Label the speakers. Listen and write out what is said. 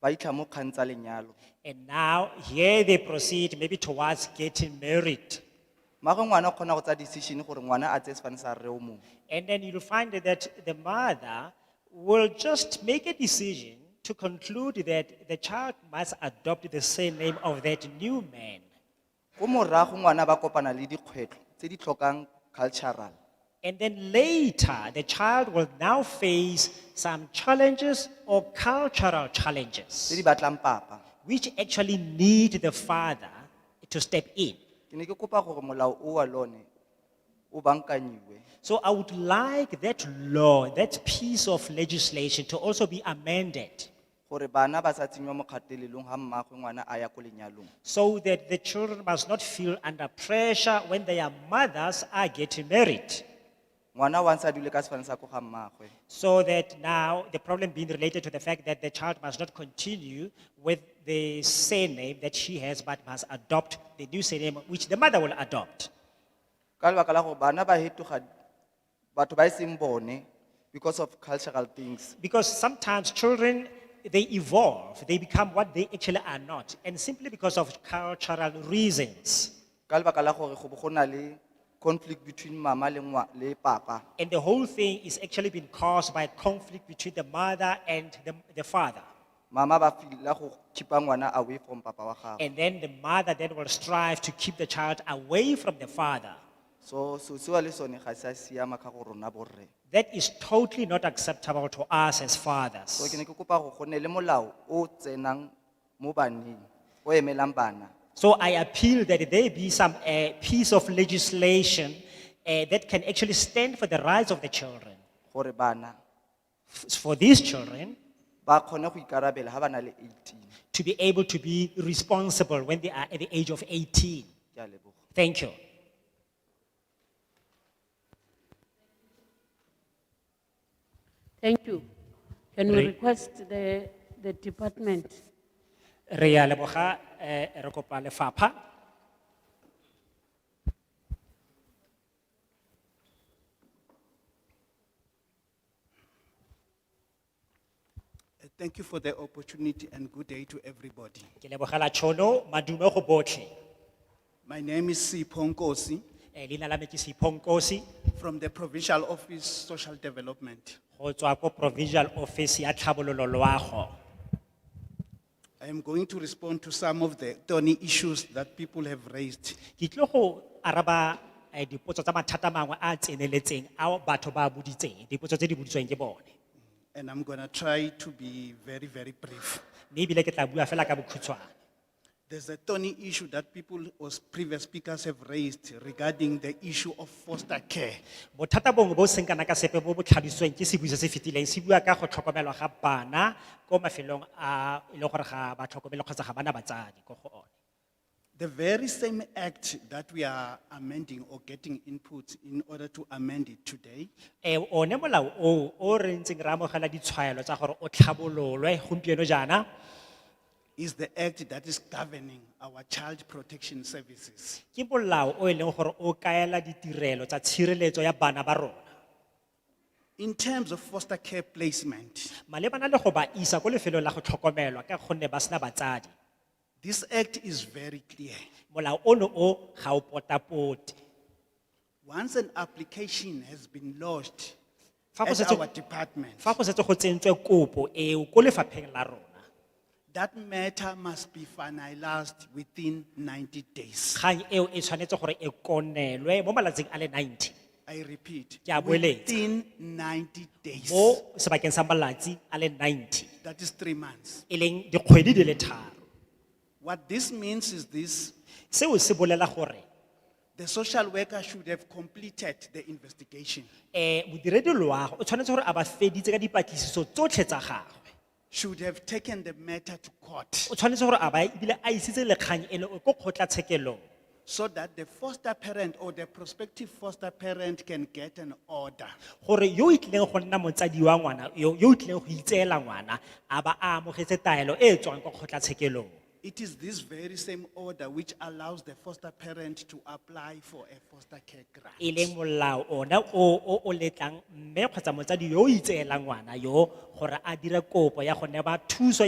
Speaker 1: ba itla mo kgang tsa lenyalo
Speaker 2: And now here they proceed maybe towards getting married.
Speaker 1: mmaagwe ngwana o kgona go tsaya decision gore ngwana a tseye sefane sa rre o mongwe
Speaker 2: And then you'll find that the mother will just make a decision to conclude that the child must adopt the same name of that new man.
Speaker 1: ko morago ngwana ba kopana le dikgwetlho tse di tlhokang cultural
Speaker 2: And then later, the child will now face some challenges or cultural
Speaker 1: tse di
Speaker 2: challenges,
Speaker 1: batlang papa
Speaker 2: which actually need the father to step in.
Speaker 1: ke ne ke kopa gore molao o wa lone o bankanyiwe
Speaker 2: So I would like that law, that piece of legislation to also be amended
Speaker 1: gore bana ba sa tsenyiwa mo kgatelelong ga mmaagwe ngwana a ya ko lenyalong
Speaker 2: so that the children must not feel under pressure when their mothers are getting married.
Speaker 1: ngwana wa ntse a dule ka sefane sa ko ga mmaagwe
Speaker 2: So that now the problem being related to the fact that the child must not continue with the surname that she has, but must adopt the new surname which the mother will adopt.
Speaker 1: ka lebaka la gore bana ba hetoga batho ba e seng bone because of cultural things
Speaker 2: Because sometimes children, they evolve, they become what they actually are not, and simply because of cultural reasons.
Speaker 1: ka lebaka la gore go bo go na le conflict between mama le ngwa le papa
Speaker 2: And the whole thing is actually been caused by conflict between the mother and the, the father.
Speaker 1: mama ba fila go khipa ngwana away from papa wa gagwe
Speaker 2: And then the mother then will strive to keep the child away from the father.
Speaker 1: so so seo le sone ga se a siama ka go rona borre
Speaker 2: That is totally not acceptable to us as
Speaker 1: so ke
Speaker 2: fathers.
Speaker 1: ne ke kopa go gone le molao o tsenang mo baneng o emelang bana
Speaker 2: So I appeal that there be some uh, piece of legislation uh, that can actually stand for the rights of the children,
Speaker 1: gore bana
Speaker 2: f- for these children
Speaker 1: ba kgone go ikarabela ga ba na le eighteen
Speaker 2: to be able to be responsible when they are at the age of 18.
Speaker 1: ke a leboga
Speaker 2: Thank you.
Speaker 3: Thank you. Can we
Speaker 2: Re-
Speaker 3: request the, the department?
Speaker 2: Re a leboga, eh, re kopa lefapha.
Speaker 4: Uh, Thank you for the opportunity and good day to everybody.
Speaker 2: Ke lebogela tšhono, madume go botlhe.
Speaker 4: My name is Sipho Nkosi
Speaker 2: Eh, leina la me ke Sipho Nkosi,
Speaker 4: from the Provincial Office Social Development.
Speaker 2: go tswa ko Provincial Office ya Tlhabololo Loago.
Speaker 4: I am going to respond to some of the thorny issues that people have raised.
Speaker 2: Ke tlile go araba eh, dipotso tsa mathata a mangwe a a tseneletseng ao batho ba a boditseng, dipotso tse di boditsweng ke bone.
Speaker 4: And I'm going to try to be very, very brief.
Speaker 2: Mme ebile ke tla bua fela ka bokhutshwane.
Speaker 4: There's a thorny issue that people or previous speakers have raised regarding the issue of foster care.
Speaker 2: Bothata bongwe bo seng kana ka sepe bo bo tlhalositsweng ke sebui se se fetileng se bua ka go tlhokomelwa ga bana ko mafelong a e leng gore ga ba tlhokomelwe kgotsa ga bana batsadi ko go one.
Speaker 4: The very same act that we are amending or getting input in order to amend it today
Speaker 2: Eh, one molao o, o re ntseng re amogela ditshwaelo tsa gore o tlhabololwe gompieno jaana,
Speaker 4: is the act that is governing our child protection services.
Speaker 2: ke molao o e leng gore o kaela ditirelo tsa tshireletso ya bana ba rona.
Speaker 4: In terms of foster care placement,
Speaker 2: Malebana le go ba isa ko lefelong la go tlhokomelwa ka gonne ba sena batsadi.
Speaker 4: this act is very clear.
Speaker 2: Molao ono o ga o potapote.
Speaker 4: Once an application has been lodged
Speaker 2: Fa go
Speaker 4: at
Speaker 2: setse-
Speaker 4: our department,
Speaker 2: Fa go setse go tsentswe kopo eo ko lefapheng la rona,
Speaker 4: that matter must be finalized within ninety days.
Speaker 2: kgang eo e tshwanetse gore e konelwe mo malatsing a le 90
Speaker 4: I repeat,
Speaker 2: Ke a boeletsa.
Speaker 4: within ninety days.
Speaker 2: mo sebakeng sa malatsi a le 90
Speaker 4: That is three months.
Speaker 2: e leng dikgwedi di le tharo
Speaker 4: What this means is this,
Speaker 2: seo se bolela gore
Speaker 4: the social worker should have completed the investigation,
Speaker 2: eh modiredi loago o tshwanetse gore a ba feditse ka dipatlisiso tsotlhe tsa gagwe
Speaker 4: should have taken the matter to court.
Speaker 2: o tshwanetse gore a ba ebile a isitse lekgang eno ko kgotlatshekelong
Speaker 4: so that the foster parent or the prospective foster parent can get an order.
Speaker 2: gore yo o itlileng go nna motsadi wa ngwana yo yo o itlileng go itseela ngwana a ba a amogetse taelo e e tswang kwa kgotlatshekelong
Speaker 4: It is this very same order which allows the foster parent to apply for a foster care
Speaker 2: e leng
Speaker 4: grant.
Speaker 2: molao ona o o o letlang mme kgotsa motsadi yo o itseela ngwana yo gore a dire kopo ya go neba thuso